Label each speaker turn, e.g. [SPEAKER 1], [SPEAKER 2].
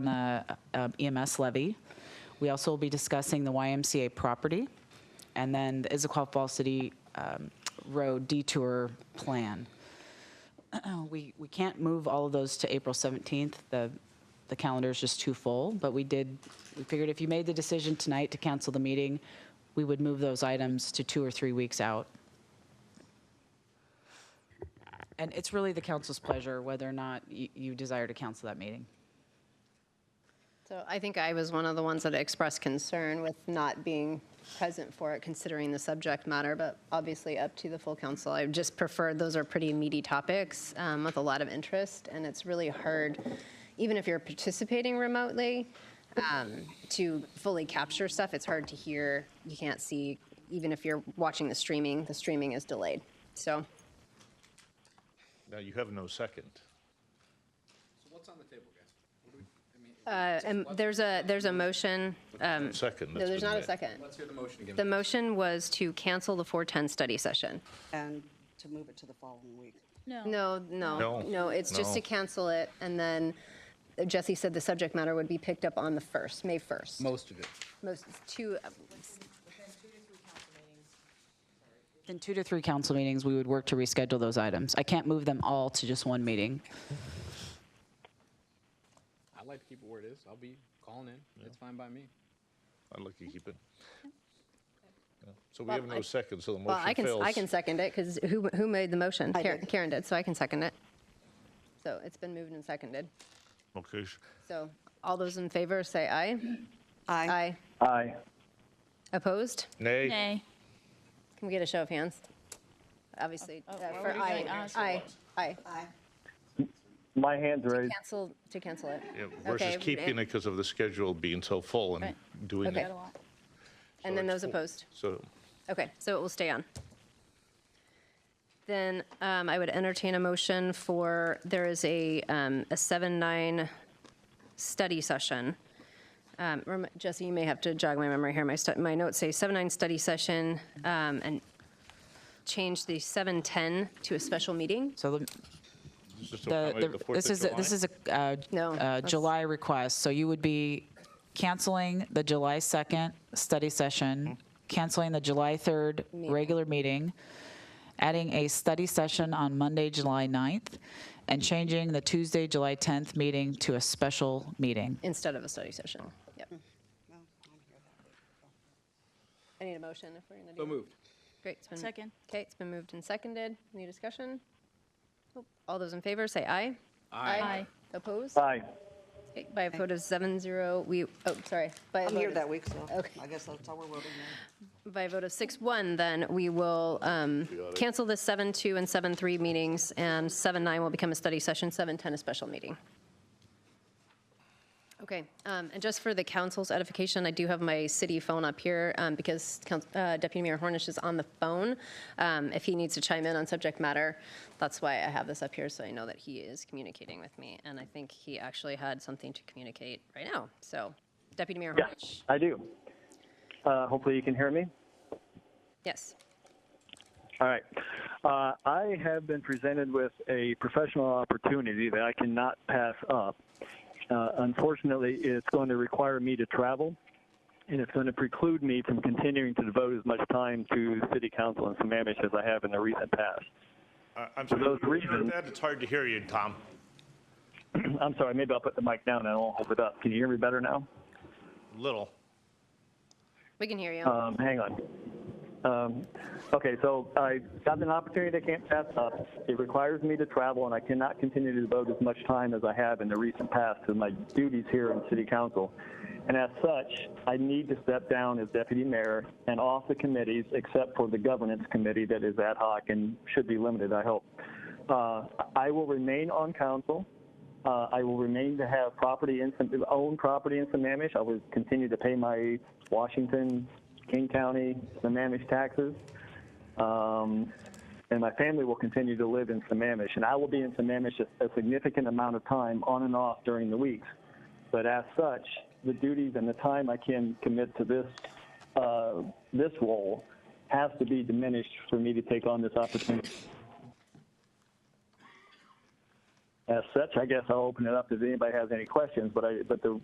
[SPEAKER 1] the uh, EMS levy. We also will be discussing the YMCA property, and then the Issaquah Falls City um, Road detour plan. We, we can't move all of those to April 17th. The, the calendar is just too full, but we did, we figured if you made the decision tonight to cancel the meeting, we would move those items to two or three weeks out. And it's really the council's pleasure whether or not you, you desire to cancel that meeting.
[SPEAKER 2] So I think I was one of the ones that expressed concern with not being present for it, considering the subject matter, but obviously up to the full council. I just prefer, those are pretty meaty topics um, with a lot of interest, and it's really hard, even if you're participating remotely, um, to fully capture stuff. It's hard to hear, you can't see, even if you're watching the streaming, the streaming is delayed. So
[SPEAKER 3] Now, you have no second.
[SPEAKER 2] uh, and there's a, there's a motion, um,
[SPEAKER 3] Second.
[SPEAKER 2] no,
[SPEAKER 3] that's
[SPEAKER 2] there's
[SPEAKER 3] been
[SPEAKER 2] not a
[SPEAKER 3] made.
[SPEAKER 2] second.
[SPEAKER 4] Let's hear the motion
[SPEAKER 2] The
[SPEAKER 4] again.
[SPEAKER 2] motion was to cancel the 410 study session.
[SPEAKER 5] And to move it to the following week.
[SPEAKER 2] No,
[SPEAKER 3] No.
[SPEAKER 2] no, no, it's just to
[SPEAKER 3] No.
[SPEAKER 2] cancel it, and then Jesse said the subject matter would be picked up on the 1st, May 1st.
[SPEAKER 4] Most of it.
[SPEAKER 2] Most, two, uh,
[SPEAKER 1] In two to three council meetings, we would work to reschedule those items. I can't move them all to just one meeting.
[SPEAKER 4] I like to keep it where it is. I'll be calling in. It's fine by me.
[SPEAKER 3] I'd like to keep it. Yeah. So we have
[SPEAKER 2] I-
[SPEAKER 3] no second, so the
[SPEAKER 2] well, I
[SPEAKER 3] motion
[SPEAKER 2] can,
[SPEAKER 3] fails.
[SPEAKER 2] I can second it, because who, who made the motion?
[SPEAKER 5] I
[SPEAKER 2] Karen-
[SPEAKER 5] did.
[SPEAKER 2] Karen did, so I can second it. So it's been moved and seconded.
[SPEAKER 3] Okay, sh-
[SPEAKER 2] So all those in favor, say aye.
[SPEAKER 5] I
[SPEAKER 2] Aye. Opposed?
[SPEAKER 3] Nay,
[SPEAKER 6] Nay.
[SPEAKER 2] Can we get a show of hands? Obviously,
[SPEAKER 5] Oh,
[SPEAKER 2] uh, for aye, aye, aye.
[SPEAKER 7] My hand's raised.
[SPEAKER 2] Cancel, to cancel it.
[SPEAKER 3] Yeah, versus
[SPEAKER 2] Okay,
[SPEAKER 3] keeping it because of the schedule being so full and
[SPEAKER 6] Right.
[SPEAKER 3] doing
[SPEAKER 2] Okay.
[SPEAKER 3] it.
[SPEAKER 2] And then
[SPEAKER 3] that's
[SPEAKER 2] those
[SPEAKER 3] four.
[SPEAKER 2] opposed?
[SPEAKER 3] So
[SPEAKER 2] Okay, so it will stay on. Then um, I would entertain a motion for, there is a, um, a 7-9 study session. Um, rem- Jesse, you may have to jog my memory here. My, stu- my notes say 7-9 study session um, and change the 7-10 to a special meeting.
[SPEAKER 1] So the-
[SPEAKER 3] just
[SPEAKER 1] the,
[SPEAKER 3] accommodate the
[SPEAKER 1] the-
[SPEAKER 3] Fourth
[SPEAKER 1] this
[SPEAKER 3] of
[SPEAKER 1] is, a-
[SPEAKER 3] July?
[SPEAKER 1] this is a uh,
[SPEAKER 2] No,
[SPEAKER 1] uh,
[SPEAKER 2] that's-
[SPEAKER 1] July request, so you would be canceling the July 2nd study
[SPEAKER 3] Hmm.
[SPEAKER 1] session, canceling the July 3rd regular meeting, adding a study session on Monday, July 9th, and changing the Tuesday, July 10th meeting to a special meeting.
[SPEAKER 2] Instead of a study session. Yep. I need a motion if we're going to do
[SPEAKER 4] So
[SPEAKER 2] that.
[SPEAKER 4] moved.
[SPEAKER 2] Great. it's been-
[SPEAKER 6] Second.
[SPEAKER 2] Okay, it's been moved and seconded. Any discussion? Nope. All those in favor, say aye.
[SPEAKER 6] Aye.
[SPEAKER 2] Opposed?
[SPEAKER 7] Aye.
[SPEAKER 2] Okay, By a vote of seven zero, we, oh, sorry. By a
[SPEAKER 5] I'm
[SPEAKER 2] vote
[SPEAKER 5] here
[SPEAKER 2] of-
[SPEAKER 5] that week, so
[SPEAKER 2] Okay.
[SPEAKER 5] I guess that's all we're voting on.
[SPEAKER 2] By a vote of six one, then we will um, cancel the seven two and seven three meetings, and seven nine will become a study session, seven ten a special meeting. Okay, um, and just for the council's edification, I do have my city phone up here um, because Coun- uh, Deputy Mayor Hornish is on the phone. Um, If he needs to chime in on subject matter, that's why I have this up here, so I know that he is communicating with me. And I think he actually had something to communicate right now. So Deputy Mayor Hornish,
[SPEAKER 7] Yes, I do. Uh, hopefully you can hear me.
[SPEAKER 2] yes.
[SPEAKER 7] All right. Uh, I have been presented with a professional opportunity that I cannot pass up. Uh, unfortunately, it's going to require me to travel, and it's going to preclude me from continuing to devote as much time to city council and Sammamish as I have in the recent past.
[SPEAKER 3] I- I'm sorry.
[SPEAKER 7] those
[SPEAKER 3] you heard
[SPEAKER 7] reasons-
[SPEAKER 3] that? It's hard to hear you, Tom.
[SPEAKER 7] I'm sorry, maybe I'll put the mic down and I won't hold it up. Can you hear me better now?
[SPEAKER 3] Little.
[SPEAKER 2] We can hear you.
[SPEAKER 7] Um, hang on. Um, okay, so I got an opportunity I can't pass up. It requires me to travel, and I cannot continue to devote as much time as I have in the recent past to my duties here in City Council. And as such, I need to step down as deputy mayor and off the committees, except for the governance committee that is ad hoc and should be limited, I hope. Uh, I will remain on council. Uh, I will remain to have property in, own property in Sammamish. I will continue to pay my Washington, King County, Sammamish taxes. Um, and my family will continue to live in Sammamish. And I will be in Sammamish a, a significant amount of time on and off during the weeks. But as such, the duties and the time I can commit to this, uh, this role has to be diminished for me to take on this opportunity. As such, I guess I'll open it up if anybody has any questions, but I, but the